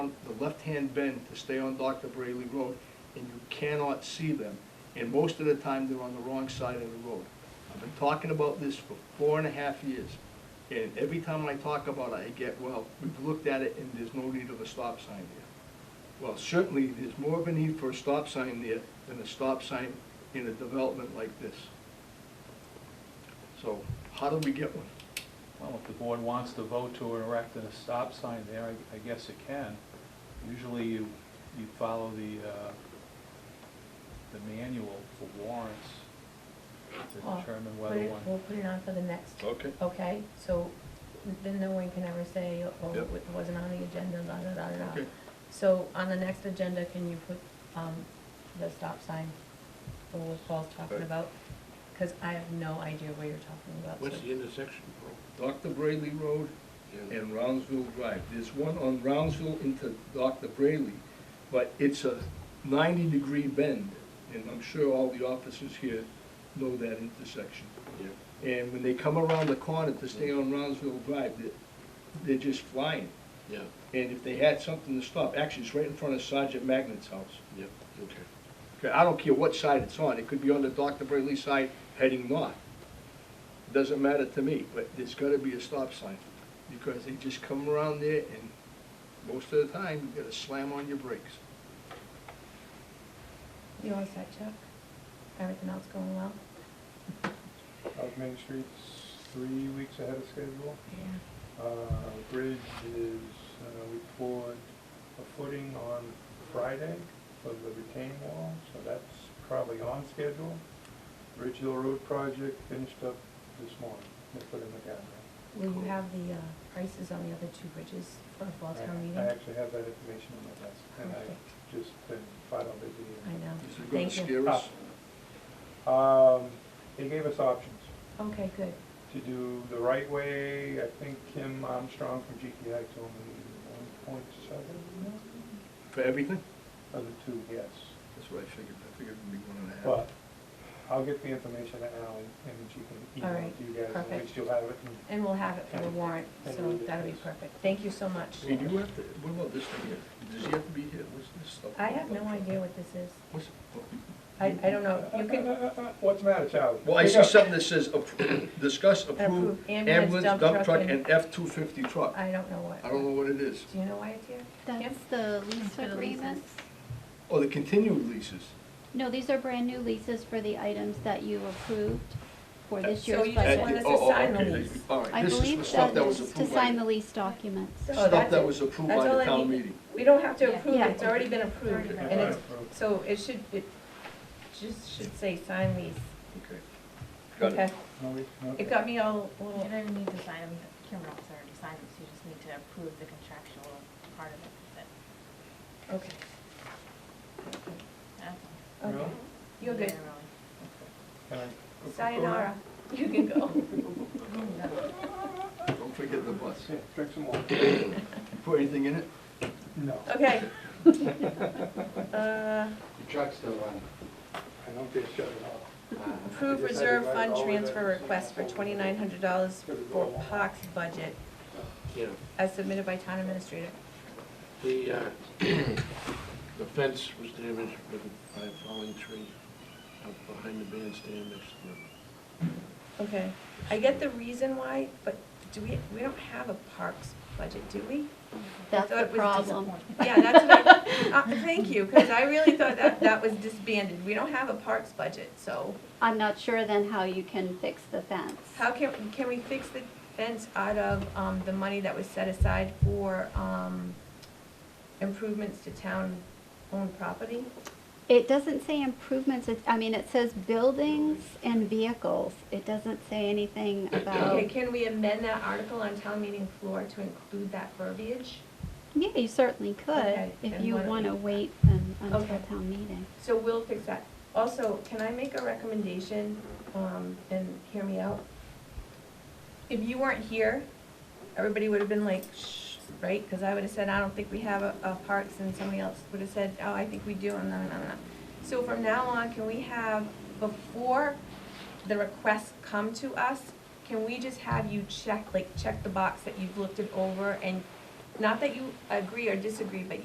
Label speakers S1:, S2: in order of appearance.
S1: left-hand bend to stay on Dr. Brayley Road, and you cannot see them. And most of the time, they're on the wrong side of the road. I've been talking about this for four and a half years, and every time I talk about it, I get, well, we've looked at it and there's no need of a stop sign there. Well, certainly, there's more of a need for a stop sign there than a stop sign in a development like this. So, how do we get one?
S2: Well, if the board wants to vote to erect a stop sign there, I- I guess it can. Usually you, you follow the, uh, the manual for warrants to
S3: Well,
S2: determine
S3: put
S2: whether
S3: it- We'll
S2: one,
S3: put it on for the next.
S1: Okay.
S3: Okay, so then no one can ever say, oh,
S1: Yep.
S3: it wasn't on the agenda, da, da, da, da, da.
S1: Okay.
S3: So on the next agenda, can you put, um, the stop sign, or what Paul's talking
S1: Okay.
S3: about? Cause I have no idea what you're talking about.
S4: What's
S3: so-
S4: the intersection,
S1: Dr. Brayley Road
S4: bro?
S1: and Roundsville Drive. There's one on Roundsville into Dr. Brayley, but it's a ninety-degree bend, and I'm sure all the officers here know that intersection.
S4: Yeah.
S1: And when they come around the corner to stay on Roundsville Drive, they- they're just flying.
S4: Yeah,
S1: And if they had something to stop, actually, it's right in front of Sergeant Magnet's house.
S4: yeah, okay.
S1: Okay, I don't care what side it's on, it could be on the Dr. Brayley side heading north. Doesn't matter to me, but there's gotta be a stop sign, because they just come around there and most of the time, you gotta slam on your brakes.
S3: You all set, Chuck? Everything else going well?
S5: South Main Street's three weeks ahead of schedule.
S3: Yeah.
S5: Uh, Bridge is, uh, we poured a footing on Friday for the retaining wall, so that's probably on schedule. Ridge Hill Road project finished up this morning, they put in the guardrail.
S3: Will you have the, uh, prices on the other two bridges for a fall town
S5: I-
S3: meeting?
S5: I actually have that information on my desk, and
S3: Perfect.
S5: I've just been flat out busy.
S3: I know,
S1: Is it gonna
S3: thank you.
S1: scare us?
S5: Um, they gave us options.
S3: Okay, good,
S5: to do the right way. I think Kim Armstrong from GTI told me one point seven million,
S1: For everything?
S5: other two, yes.
S1: That's what I figured, I figured it'd be one and a half.
S5: But I'll get the information to Ally and she can
S3: All
S5: email
S3: right,
S5: it to you guys, and
S3: perfect.
S5: at least you'll have it. and-
S3: and we'll have it for the warrant,
S5: And
S3: so
S5: we'll do
S3: that'll be
S5: this.
S3: perfect, thank you so much.
S1: Hey, do you have to, what about this thing here? Does he have to be here? What's this stuff?
S3: I have no idea what this is.
S1: What's,
S3: I, I don't know, Oh, you
S5: Uh,
S3: can
S5: uh, uh, uh, What's the matter, child?
S1: well, I
S5: Wake
S1: see
S5: up.
S1: something that says, appro- discuss, approve
S3: approve
S1: ambulance, dump truck, and F-250 truck.
S3: I don't know what.
S1: I don't know what it is.
S3: Do you know why it's here? Kim?
S6: That's the lease
S3: The leases.
S6: agreements.
S1: Oh, the continued leases.
S6: No, these are brand-new leases for the items that you approved
S1: Uh,
S6: for this
S3: So you
S6: year's
S3: just
S1: At the-
S3: want
S6: budget.
S3: us to
S1: oh, oh,
S3: sign the
S1: okay,
S3: lease.
S1: they- All
S6: I
S1: right, this is the
S6: believe
S1: stuff
S6: that
S1: that was
S6: is to
S1: approved
S6: sign the
S1: by,
S6: lease documents.
S3: So
S1: stuff
S3: that's
S1: that
S3: it.
S1: was approved
S3: That's
S1: by
S3: all
S1: the
S3: I
S1: town
S3: need.
S1: meeting.
S3: We don't have to
S6: Yeah.
S3: approve it,
S6: Yeah.
S3: it's already been approved,
S6: Already
S3: and it's,
S5: approved.
S3: so it should, it just should say sign lease.
S1: Okay. Got
S3: Okay,
S1: it.
S5: No, we- no.
S3: it got me all,
S7: You
S3: well,
S7: don't even need to sign them, Kimbrell's already signed them, so you just need to approve the contractual part of it, but,
S3: okay,
S7: uh,
S3: okay,
S5: Really?
S3: you're
S7: yeah,
S3: good.
S7: really.
S5: Can I-
S3: Sayonara, you can go.
S1: Don't forget the bus.
S5: Yeah, Drink some water.
S1: You Put anything in it?
S5: No,
S3: Okay. Uh,
S8: The truck's still running.
S5: I don't get shut it off.
S8: Uh,
S3: Approve reserve fund transfer request for twenty-nine hundred dollars for POX budget
S4: Yeah,
S3: as submitted by town administrator.
S4: the, uh, the fence was damaged with, a- by a falling tree up behind the bandstand next to the,
S3: Okay, I get the reason why, but do we, we don't have a parks budget, do we? thought
S6: That's the
S3: it was
S6: problem.
S3: Yeah, that's what I, uh, thank you, because I really thought that, that was disbanded. We don't have a parks budget, so
S6: I'm not sure then how you can fix the fence.
S3: how can, can we fix the fence out of, um, the money that was set aside for, um, improvements to town-owned property?
S6: It doesn't say improvements, it, I mean, it says buildings and vehicles. It doesn't say anything about,
S3: Okay, can we amend that article on town meeting floor to include that verbiage?
S6: yeah, you certainly could,
S3: Okay,
S6: if
S3: then
S6: you
S3: why don't
S6: wanna
S3: we-
S6: wait un- until
S3: Okay.
S6: town meeting.
S3: So we'll fix that. Also, can I make a recommendation, um, and hear me out? If you weren't here, everybody would have been like, shh, right? Because I would have said, I don't think we have a, a parks, and somebody else would have said, oh, I think we do, and no, no, no. So from now on, can we have, before the requests come to us, can we just have you check, like, check the box that you've looked it over, and not that you agree or disagree, but